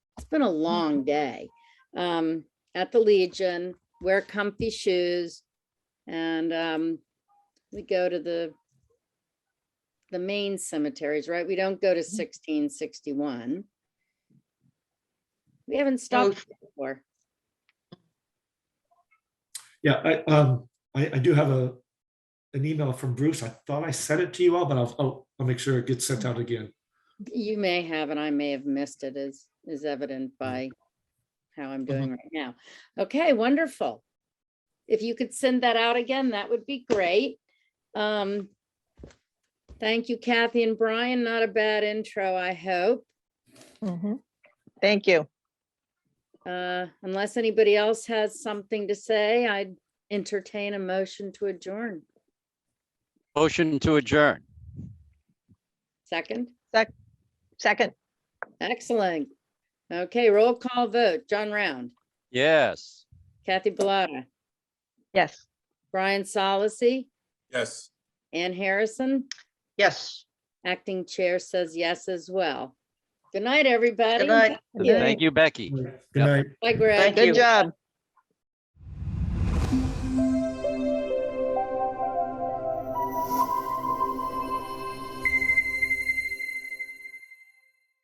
been a long day. Um, at the Legion, wear comfy shoes. And, um, we go to the, the main cemeteries, right? We don't go to sixteen sixty-one. We haven't stopped before. Yeah, I, um, I, I do have a, an email from Bruce. I thought I sent it to you all, but I'll, I'll, I'll make sure it gets sent out again. You may have, and I may have missed it, as is evident by how I'm doing right now. Okay, wonderful. If you could send that out again, that would be great. Um, Thank you, Kathy and Brian. Not a bad intro, I hope. Mhm. Thank you. Uh, Unless anybody else has something to say, I'd entertain a motion to adjourn. Motion to adjourn. Second, Second, excellent. Okay, roll call vote. John Round, Yes. Kathy Bellata, yes. Brian Solacey, Yes. Ann Harrison. Yes. Acting chair says yes as well. Good night, everybody. Good night. Thank you, Becky. Good Yeah. night. Bye, Greg. Good job.